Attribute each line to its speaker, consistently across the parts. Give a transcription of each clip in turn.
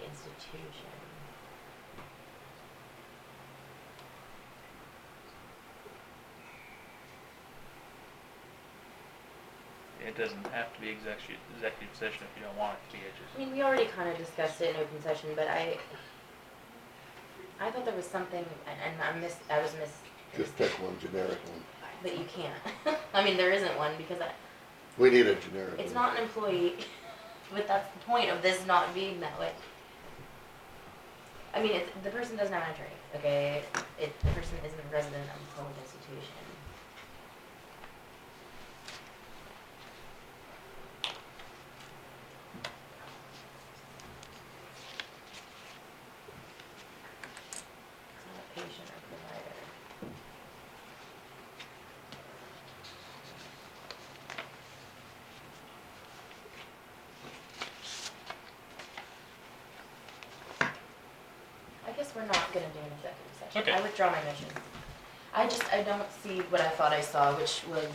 Speaker 1: Constitution.
Speaker 2: It doesn't have to be executive, executive session if you don't want it to be, it
Speaker 1: I
Speaker 2: just,
Speaker 1: mean, we already kind of discussed it in open session, but I, I thought there was something, and- and I missed, I was miss,
Speaker 3: Just pick one generic one.
Speaker 1: but you can't. I mean, there isn't one because I,
Speaker 3: We need a generic one.
Speaker 1: it's not an employee, but that's the point of this not being that way. I mean, it's, the person doesn't have an attorney, okay? It, the person isn't a resident of the public institution. It's not a patient or provider. I guess we're not gonna do an executive session.
Speaker 2: Okay.
Speaker 1: I withdraw my motion. I just, I don't see what I thought I saw, which was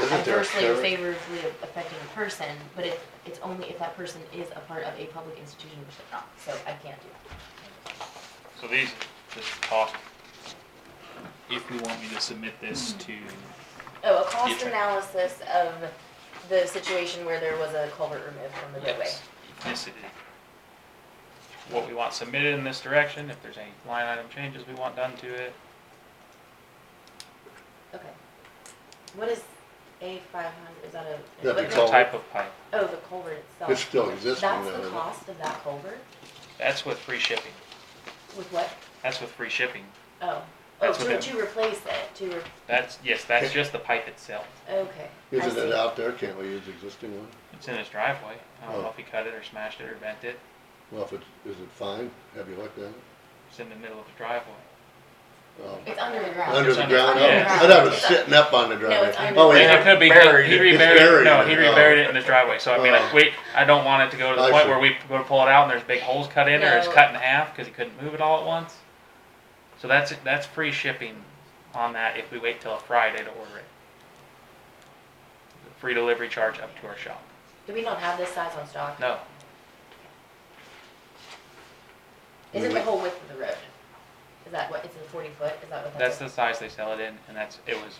Speaker 3: Isn't there a
Speaker 1: adversely or
Speaker 3: sheriff?
Speaker 1: favorably affecting a person, but it, it's only if that person is a part of a public institution, which they're not, so I can't do that.
Speaker 2: so these, just talk. If you want me to submit this to,
Speaker 1: Oh, a cost
Speaker 2: Future.
Speaker 1: analysis of the situation where there was a culvert removed from the roadway.
Speaker 2: yes, ethnicity. What we want submitted in this direction, if there's any line item changes we want done to it,
Speaker 1: Okay. What is A five hundred, is that a?
Speaker 3: That'd be
Speaker 1: what the-
Speaker 3: called-
Speaker 2: the type of pipe,
Speaker 1: Oh, the culvert itself.
Speaker 3: It's still existing now,
Speaker 1: That's
Speaker 3: isn't
Speaker 1: the
Speaker 3: it?
Speaker 1: cost of that culvert?
Speaker 2: that's with free shipping,
Speaker 1: With what?
Speaker 2: that's with free shipping,
Speaker 1: Oh, oh,
Speaker 2: That's what
Speaker 1: to,
Speaker 2: that-
Speaker 1: to replace it, to, re-
Speaker 2: that's, yes, that's just the pipe itself.
Speaker 1: okay. I
Speaker 3: Isn't it
Speaker 1: see.
Speaker 3: out there? Can't we use existing one?
Speaker 2: It's in his driveway, I don't know
Speaker 3: Oh.
Speaker 2: if he cut it or smashed it or bent it,
Speaker 3: Well, if it's, is it fine? Have you looked at it?
Speaker 2: it's in the middle of the driveway.
Speaker 3: Oh.
Speaker 1: It's under the ground.
Speaker 3: Under
Speaker 2: it's
Speaker 3: the
Speaker 2: under-
Speaker 3: ground? Oh,
Speaker 2: yeah.
Speaker 3: I thought it was
Speaker 1: It's-
Speaker 3: sitting up on the driveway.
Speaker 1: it's under
Speaker 3: Oh,
Speaker 1: the
Speaker 3: wait,
Speaker 1: ground.
Speaker 2: And it could be, he
Speaker 3: buried it. It's
Speaker 2: reburied, it. no,
Speaker 3: buried
Speaker 2: he
Speaker 3: in it.
Speaker 2: reburied it in his driveway, so I mean, like,
Speaker 3: Oh.
Speaker 2: we, I don't want it to go to the
Speaker 3: I
Speaker 2: point
Speaker 3: see.
Speaker 2: where we go to pull it out and there's big holes cut in or it's
Speaker 1: No.
Speaker 2: cut in half, cause he couldn't move it all at once. So that's, that's free shipping on that if we wait till a Friday to order it. Free delivery charge up to our shop,
Speaker 1: Do we not have this size on stock?
Speaker 2: no,
Speaker 1: Is it
Speaker 3: We-
Speaker 1: the whole width of the road? Is that what, is it forty foot, is that what that
Speaker 2: that's
Speaker 1: is?
Speaker 2: the size they sell it in, and that's, it was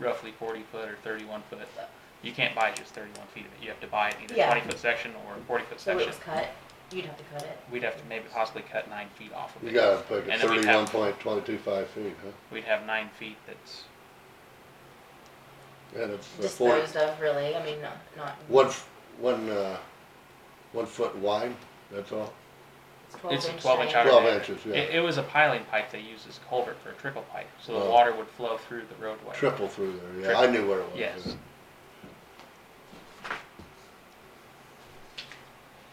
Speaker 2: roughly forty foot or thirty-one foot. You can't buy just thirty-one feet of it, you have to buy it in either
Speaker 1: Yeah.
Speaker 2: twenty foot section or a forty foot
Speaker 1: So it
Speaker 2: section.
Speaker 1: was cut, you'd have to cut it.
Speaker 2: We'd have to maybe possibly cut nine feet off of it.
Speaker 3: You gotta pick
Speaker 2: And
Speaker 3: it
Speaker 2: then we
Speaker 3: thirty-one
Speaker 2: have-
Speaker 3: point twenty-two-five feet, huh?
Speaker 2: We'd have nine feet that's,
Speaker 3: And it's a four,
Speaker 1: Disposed of, really, I mean, not, not,
Speaker 3: one, f- one, uh, one foot wide, that's all.
Speaker 1: it's twelve inch.
Speaker 2: it's a twelve inch
Speaker 1: diameter.
Speaker 2: outer.
Speaker 3: Twelve
Speaker 2: diameter.
Speaker 3: inches, yeah.
Speaker 2: It, it was a piling pipe they used as culvert for a trickle pipe, so the
Speaker 3: Wow.
Speaker 2: water would flow through the roadway.
Speaker 3: Triple through there, yeah, I knew where it was.
Speaker 2: Yes.
Speaker 3: yeah.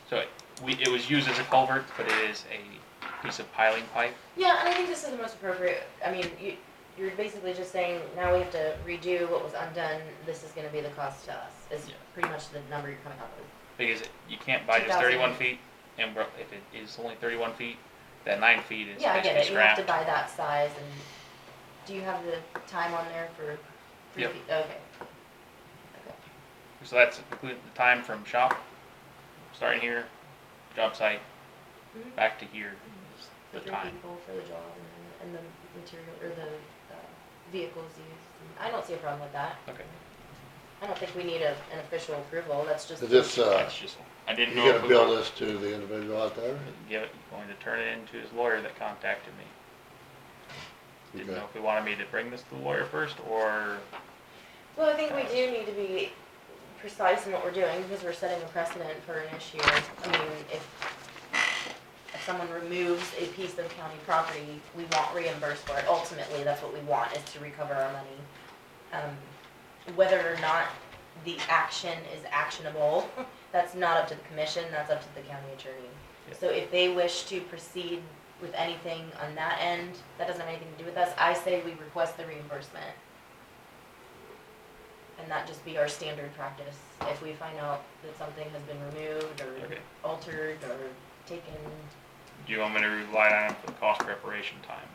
Speaker 2: So it, we, it was used as a culvert, but it is a piece of piling pipe.
Speaker 1: Yeah, and I think this is the most appropriate, I mean, you, you're basically just saying, now we have to redo what was undone, this is gonna be the cost to us, is
Speaker 2: Yeah.
Speaker 1: pretty much the number you're coming up with.
Speaker 2: Because it- you can't buy just
Speaker 1: 2,000.
Speaker 2: thirty-one feet, and bro- if it is only thirty-one feet, that nine feet is
Speaker 1: Yeah, I get
Speaker 2: basically
Speaker 1: it, you have to buy
Speaker 2: scrap.
Speaker 1: that size and, do you have the time on there for three
Speaker 2: Yep.
Speaker 1: feet? Okay. Okay.
Speaker 2: So that's including the time from shop, starting here, job site,
Speaker 1: Mhm.
Speaker 2: back to here is
Speaker 1: The
Speaker 2: the
Speaker 1: three
Speaker 2: time.
Speaker 1: people for the job and, and the material, or the, uh, vehicles used, I don't see a problem with that,
Speaker 2: Okay,
Speaker 1: I don't think we need a, an official approval, that's just.
Speaker 3: Is this, uh,
Speaker 2: that's just, I didn't
Speaker 3: you
Speaker 2: know. if
Speaker 3: gonna
Speaker 2: we
Speaker 3: bill
Speaker 2: were-
Speaker 3: this to the individual out there?
Speaker 2: give it, going to turn it into his lawyer that contacted me. Didn't
Speaker 3: Okay.
Speaker 2: know if he wanted me to bring this to the lawyer first, or,
Speaker 1: Well, I think we do need to be precise in what we're doing, because we're setting a precedent for an issue. I mean, if, if someone removes a piece of county property, we want reimbursed for it. Ultimately, that's what we want, is to recover our money. Um, whether or not the action is actionable, that's not up to the commission, that's up to the county attorney.
Speaker 2: Yep.
Speaker 1: So if they wish to proceed with anything on that end, that doesn't have anything to do with us, I say we request the reimbursement. And that just be our standard practice, if we find out that something has been removed or
Speaker 2: Okay.
Speaker 1: altered or taken.
Speaker 2: do you want me to rely on him for the cost preparation time?